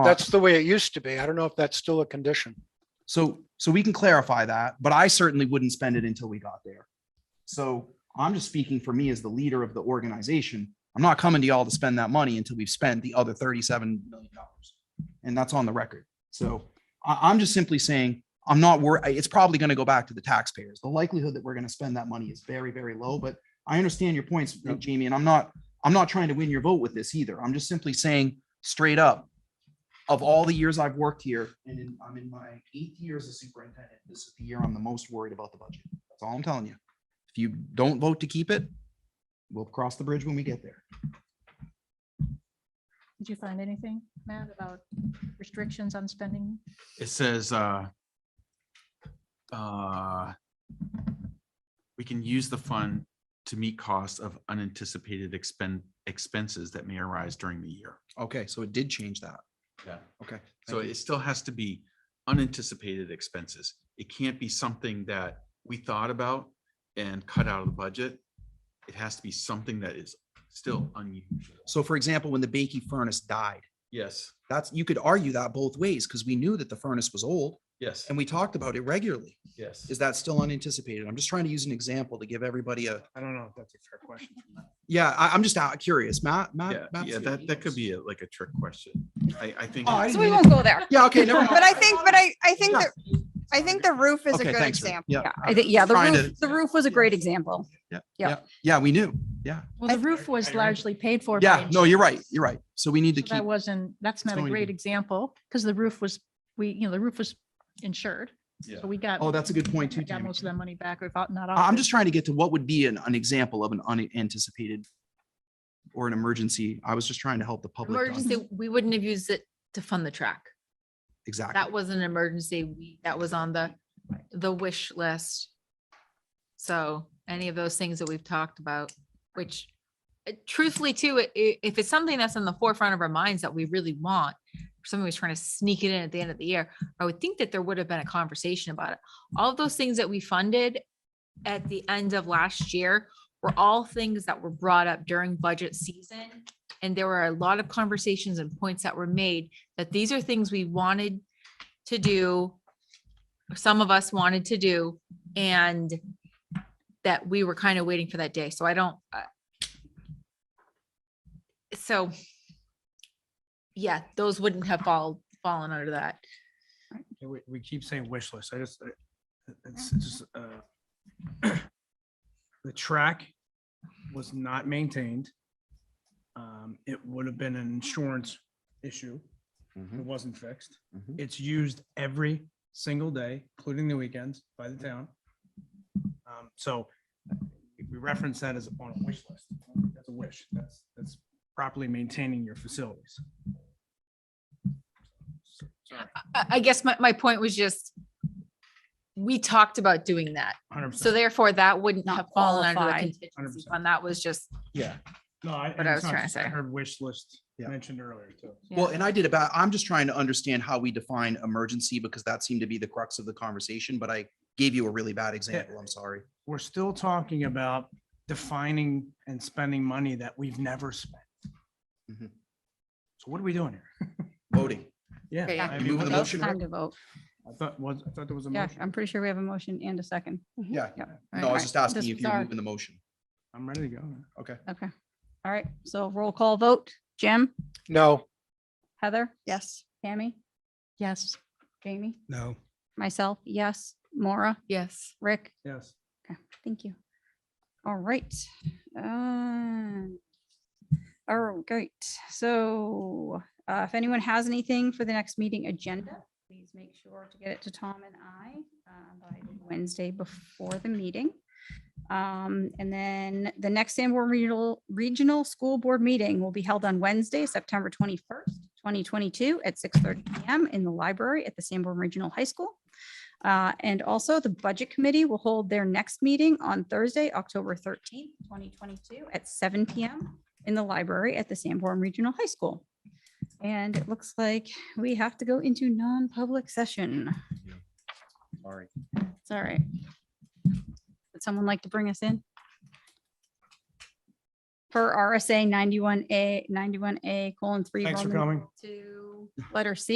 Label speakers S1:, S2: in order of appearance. S1: That's the way it used to be. I don't know if that's still a condition.
S2: So, so we can clarify that, but I certainly wouldn't spend it until we got there. So I'm just speaking for me as the leader of the organization. I'm not coming to y'all to spend that money until we've spent the other thirty-seven million dollars. And that's on the record. So I, I'm just simply saying, I'm not worried. It's probably going to go back to the taxpayers. The likelihood that we're going to spend that money is very, very low, but I understand your points, Jamie, and I'm not, I'm not trying to win your vote with this either. I'm just simply saying straight up, of all the years I've worked here, and in- I'm in my eighth year as a superintendent, this is the year I'm the most worried about the budget. That's all I'm telling you. If you don't vote to keep it, we'll cross the bridge when we get there.
S3: Did you find anything, Matt, about restrictions on spending?
S4: It says, uh, uh, we can use the fund to meet costs of unanticipated expen expenses that may arise during the year.
S2: Okay, so it did change that.
S4: Yeah.
S2: Okay. thank
S4: So
S2: you.
S4: it still has to be unanticipated expenses. It can't be something that we thought about and cut out of the budget. It has to be something that is still unusual.
S2: So for example, when the Bakey furnace died,
S4: Yes,
S2: that's, you could argue that both ways because we knew that the furnace was old
S4: yes,
S2: and we talked about it regularly.
S4: yes.
S2: Is that still unanticipated? I'm just trying to use an example to give everybody a,
S1: I don't know if that's a fair question.
S2: yeah, I, I'm just out curious, Matt,
S4: Yeah,
S2: Matt. Matt's here.
S4: yeah, that, that could be a- like a trick question. I, I think.
S2: Oh, I
S4: it's-
S2: didn't
S5: So we
S2: mean
S5: won't go there.
S2: it. Yeah, okay, never mind.
S5: But I think, but I, I think,
S2: Yeah.
S5: the I think the roof is a
S2: Okay,
S5: good
S2: thanks, Ruth.
S5: example.
S2: Yeah.
S5: Yeah, I think, yeah, the
S2: Trying
S5: roof, the roof was a great example. Yeah.
S2: Yeah, we knew. Yeah.
S3: Well, the roof was largely paid for. by
S2: Yeah, no,
S3: insurance,
S2: you're right. You're right. So we need to
S3: so That
S2: keep,
S3: wasn't, that's not a
S2: going to
S3: great
S2: be-
S3: example, because the roof was, we, you know, the roof was insured.
S4: Yeah.
S3: So we got.
S2: oh, that's a good point too,
S3: we Got
S2: Tammy.
S3: most of that money back without, not.
S2: I- I'm
S3: offered.
S2: just trying to get to what would be an, an example of an unanticipated or an emergency. I was just trying to help the public. to
S6: Emergency, we wouldn't have used it to fund the track.
S2: un- Exactly.
S6: That was an emergency. We, that was on the, the wish list. So any of those things that we've talked about, which uh, truthfully too, i- i- if it's something that's in the forefront of our minds that we really want, if somebody was trying to sneak it in at the end of the year, I would think that there would have been a conversation about it. All of those things that we funded at the end of last year were all things that were brought up during budget season. And there were a lot of conversations and points that were made that these are things we wanted to do, or some of us wanted to do, and that we were kind of waiting for that day. So I don't. uh, So, yeah, those wouldn't have fall, fallen under that.
S7: Yeah, We, we keep saying wish list. I just, I- it's it's just, uh, the track was not maintained. Um, it would have been an insurance issue. It wasn't fixed.
S4: Mhm.
S7: It's used every single day, including the weekends by the town. Um, so if we reference that as on a wish list. That's a wish. That's, that's properly maintaining your facilities. Sorry,
S6: I, I guess my, my point was just, we talked about doing that.
S7: 100%.
S6: So therefore, that wouldn't
S5: Not
S6: have fallen under the
S5: qualified.
S6: contingency
S7: 100%.
S6: fund. That was just
S7: Yeah. No, I.
S6: What I was trying to
S7: I
S6: say.
S7: heard wish list
S2: Yeah.
S7: mentioned earlier too.
S2: Well, and I did about, I'm just trying to understand how we define emergency because that seemed to be the crux of the conversation, but I gave you a really bad example. I'm sorry.
S7: We're still talking about defining and spending money that we've never spent. So
S2: Mhm.
S7: what are we doing here?
S2: Voting.
S6: Okay,
S7: Yeah.
S6: yeah.
S7: I
S2: You
S7: mean,
S2: moving The
S7: what-
S2: motion,
S5: Time to vote.
S7: I thought was, I thought there was a
S5: Yeah,
S7: motion.
S5: I'm pretty sure we have a motion and a second.
S2: Yeah.
S5: Yep.
S2: Mm-hmm. No, I was just asking
S5: This
S2: you if
S5: was
S2: you were
S5: our-
S2: moving the motion.
S7: I'm ready to go.
S2: Okay.
S5: Okay. All right. So roll call vote. Jim,
S1: No,
S5: Heather? Yes. Tammy,
S3: Yes,
S5: Jamie,
S7: No.
S5: myself, yes. Maura,
S6: Yes.
S5: Rick,
S7: Yes.
S5: thank you. All right. Um, All right, great. So uh, if anyone has anything for the next meeting agenda, please make sure to get it to Tom and I uh, by Wednesday before the meeting. Um, And then the next Sanborn Regional, Regional School Board meeting will be held on Wednesday, September 21st, 2022 at 6:30 PM in the library at the Sanborn Regional High School. Uh, And also, the Budget Committee will hold their next meeting on Thursday, October 13th, 2022, at seven PM in the library at the Sanborn Regional High School. And it looks like we have to go into non-public session.
S2: All right.
S5: It's all right. Would someone like to bring us in? per RSA ninety-one A, ninety-one A colon three.
S7: Thanks for
S5: Roman
S7: coming.
S5: Two, letter C.